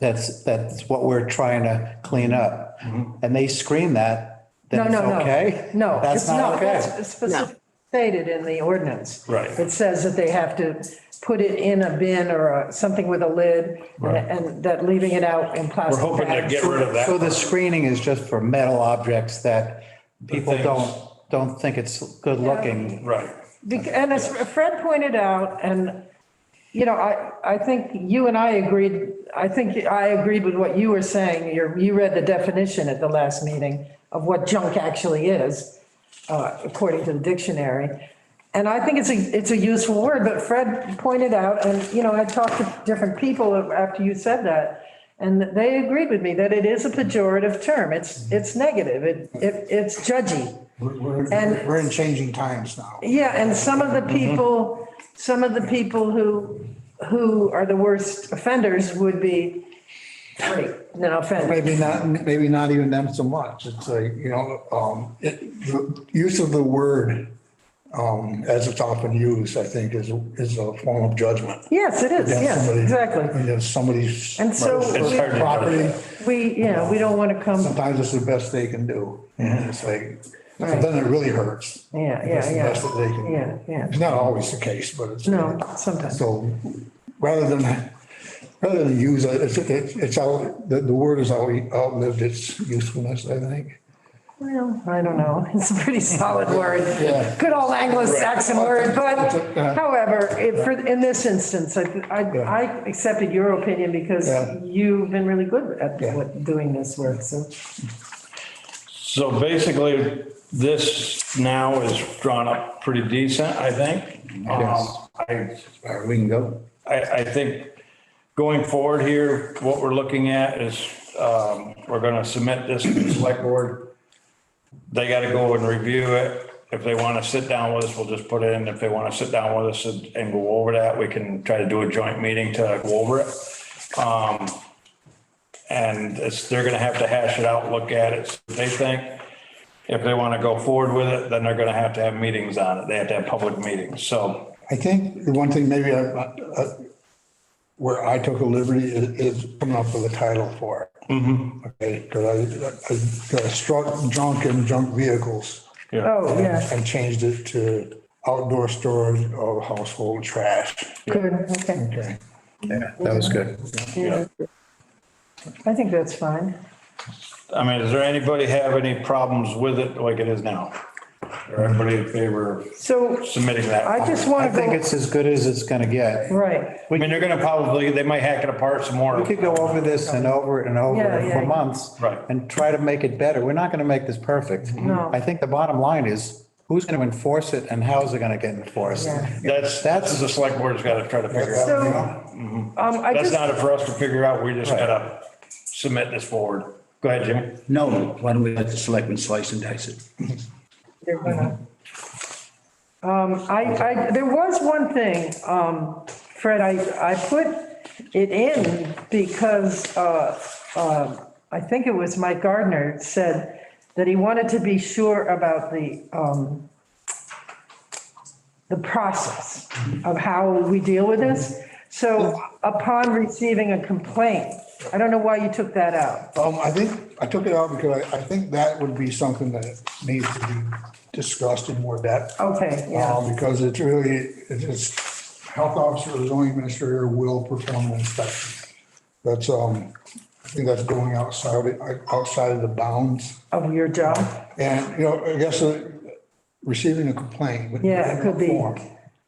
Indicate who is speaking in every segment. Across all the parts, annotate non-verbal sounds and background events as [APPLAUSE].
Speaker 1: That's, that's what we're trying to clean up.
Speaker 2: Mm-hmm.
Speaker 1: And they screen that,
Speaker 3: No,
Speaker 1: then it's
Speaker 3: no, no.
Speaker 1: okay?
Speaker 3: No.
Speaker 1: That's
Speaker 3: it's- no,
Speaker 1: not okay.
Speaker 3: that's specifically Stated in the ordinance.
Speaker 2: Right.
Speaker 3: It says that they have to put it in a bin or a- something with a lid and- and that leaving it out in plastic
Speaker 2: We're hoping to
Speaker 3: bags.
Speaker 2: get rid of
Speaker 1: So
Speaker 2: that.
Speaker 1: the screening is just for metal objects that people
Speaker 2: things-
Speaker 1: don't, don't think it's good looking.
Speaker 2: Right.
Speaker 3: Bec- And as Fred pointed out, and, you know, I, I think you and I agreed, I think I agreed with what you were saying. You're, you read the definition at the last meeting of what junk actually is, uh, according to the dictionary. And I think it's a, it's a useful word, but Fred pointed out, and, you know, I talked to different people after you said that, and they agreed with me that it is a pejorative term. It's, it's negative. It, it, it's judgy.
Speaker 4: We're, we're-
Speaker 3: And-
Speaker 4: we're in changing times now.
Speaker 3: Yeah, and some of the
Speaker 4: Mm-hmm.
Speaker 3: people, some of the people who, who are the worst offenders would be, free, no offense.
Speaker 4: Maybe not, maybe not even them so much. It's like, you know, um, it, the use of the word, um, as it's often used, I think is, is a form of judgment.
Speaker 3: Yes, it is,
Speaker 4: against
Speaker 3: yes,
Speaker 4: somebody-
Speaker 3: exactly.
Speaker 4: Against somebody's.
Speaker 3: And so It's
Speaker 2: hard to
Speaker 4: Property,
Speaker 2: judge.
Speaker 3: We, you know, we don't want to come,
Speaker 4: sometimes it's the best they can do. And it's like, so then it really hurts.
Speaker 3: yeah,
Speaker 4: It's
Speaker 3: yeah,
Speaker 4: the best
Speaker 3: yeah,
Speaker 4: that they can. do.
Speaker 3: yeah, yeah.
Speaker 4: It's not always the case, but it's.
Speaker 3: No, sometimes.
Speaker 4: So rather than, rather than use it, it's, it's it's out, the, the word has out- outlived its usefulness, I think.
Speaker 3: Well, I don't know, [LAUGHS] it's a pretty solid word.
Speaker 4: Yeah.
Speaker 3: Good old Anglo-Saxon word,
Speaker 4: It's a- yeah.
Speaker 3: but however, if, for, in this instance, I, I, I accepted your opinion because
Speaker 4: Yeah.
Speaker 3: you've been really good at
Speaker 4: Yeah.
Speaker 3: what- doing this work, so.
Speaker 2: So basically, this now is drawn up pretty decent, I think. Um,
Speaker 4: Yes.
Speaker 2: I,
Speaker 4: All right, we can go.
Speaker 2: I, I think going forward here, what we're looking at is, um, we're gonna submit this to the select board. They gotta go and review it. If they wanna sit down with us, we'll just put it in. If they wanna sit down with us and and go over that, we can try to do a joint meeting to go over it. Um, and it's, they're gonna have to hash it out, look at it, see what they think. If they wanna go forward with it, then they're gonna have to have meetings on it. They have to have public meetings, so.
Speaker 4: I think the one thing maybe I, I- where I took a liberty is, is coming up with a title for it. Mm-hmm. Okay, because I, I struck junk and junk vehicles.
Speaker 3: Oh, yeah,
Speaker 4: And changed it to outdoor storage of household trash.
Speaker 3: good, okay.
Speaker 4: Okay.
Speaker 1: That was good.
Speaker 3: Yeah. I think that's fine.
Speaker 2: I mean, does there anybody have any problems with it like it is now? Or everybody in favor of
Speaker 3: So
Speaker 2: submitting that?
Speaker 3: I just
Speaker 1: I
Speaker 3: want to
Speaker 1: think
Speaker 3: go,
Speaker 1: it's as good as it's gonna get.
Speaker 3: right,
Speaker 2: I mean, they're gonna probably, they might hack it apart some more.
Speaker 1: We could go over this and over it and over
Speaker 3: Yeah,
Speaker 1: it
Speaker 3: yeah.
Speaker 1: for months.
Speaker 2: Right.
Speaker 1: And try to make it better. We're not gonna make this perfect.
Speaker 3: No.
Speaker 1: I think the bottom line is, who's gonna enforce it and how's it gonna get enforced?
Speaker 3: Yeah.
Speaker 2: That's, that's the select board's gotta try to figure out.
Speaker 3: so, um, I
Speaker 2: That's
Speaker 3: just,
Speaker 2: not for us to figure out, we just gotta submit this forward. Go ahead, Jimmy.
Speaker 5: No, why don't we let the selectmen slice and dice it?
Speaker 3: they're gonna- um, I, I, there was one thing, um, Fred, I, I put it in because, uh, uh, I think it was Mike Gardner said that he wanted to be sure about the, um, the process of how we deal with this. So upon receiving a complaint, I don't know why you took that out.
Speaker 4: Um, I think, I took it out because I, I think that would be something that needs to be discussed in more depth.
Speaker 3: Okay, Oh, yeah,
Speaker 4: Uh, because it's really, it's, health officer, or zoning administrator will perform an inspection. That's, um, I think that's going outside, outside of the bounds.
Speaker 3: of your job.
Speaker 4: And, you know, I guess uh, receiving a complaint. would-
Speaker 3: Yeah, it could be.
Speaker 4: Form,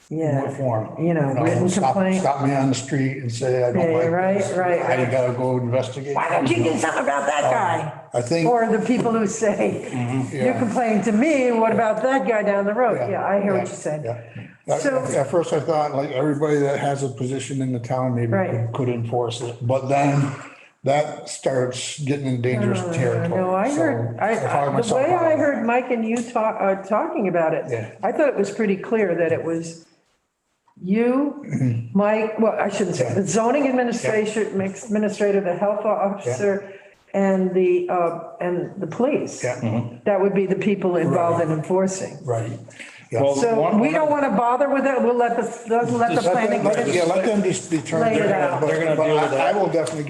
Speaker 3: Yeah.
Speaker 4: form. Um,
Speaker 3: You know, written
Speaker 4: stop-
Speaker 3: complaint.
Speaker 4: Stop me on the street and say, I
Speaker 3: Yeah,
Speaker 4: don't like.
Speaker 3: right,
Speaker 4: this.
Speaker 3: right,
Speaker 4: I
Speaker 3: right.
Speaker 4: gotta go investigate.
Speaker 3: Why don't you do something about that guy?
Speaker 4: I think.
Speaker 3: Oh. Or the people who say, you're
Speaker 4: Mm-hmm. yeah.
Speaker 3: complaining to me, what about that guy down the road? Yeah, I hear what you're saying.
Speaker 4: yeah. At
Speaker 3: So-
Speaker 4: at first I thought like everybody that has a position in the town maybe
Speaker 3: Right.
Speaker 4: could- could enforce it, but then that starts getting in dangerous territory.
Speaker 3: Uh, No, I
Speaker 4: So
Speaker 3: heard,
Speaker 4: found
Speaker 3: I, the
Speaker 4: myself
Speaker 3: way
Speaker 4: out.
Speaker 3: I heard Mike and you talk, uh, talking about
Speaker 4: Yeah.
Speaker 3: it, I thought it was pretty clear that it was
Speaker 4: Mm-hmm.
Speaker 3: you, Mike, well, I shouldn't say, the zoning administration, administrator, the health officer, and the, uh, and the police.
Speaker 4: Yeah, Mm-hmm.
Speaker 3: That would be the people involved in enforcing.
Speaker 4: right. Yeah.
Speaker 2: Well,
Speaker 3: So
Speaker 2: One-
Speaker 3: we don't want to bother with it. We'll let the, let the
Speaker 4: Let
Speaker 3: planning.
Speaker 4: them- Yeah, let them just
Speaker 3: Lay
Speaker 4: determine.
Speaker 3: it out.
Speaker 4: but-
Speaker 2: They're gonna
Speaker 4: but
Speaker 2: deal with
Speaker 4: I-
Speaker 2: that.
Speaker 4: I will definitely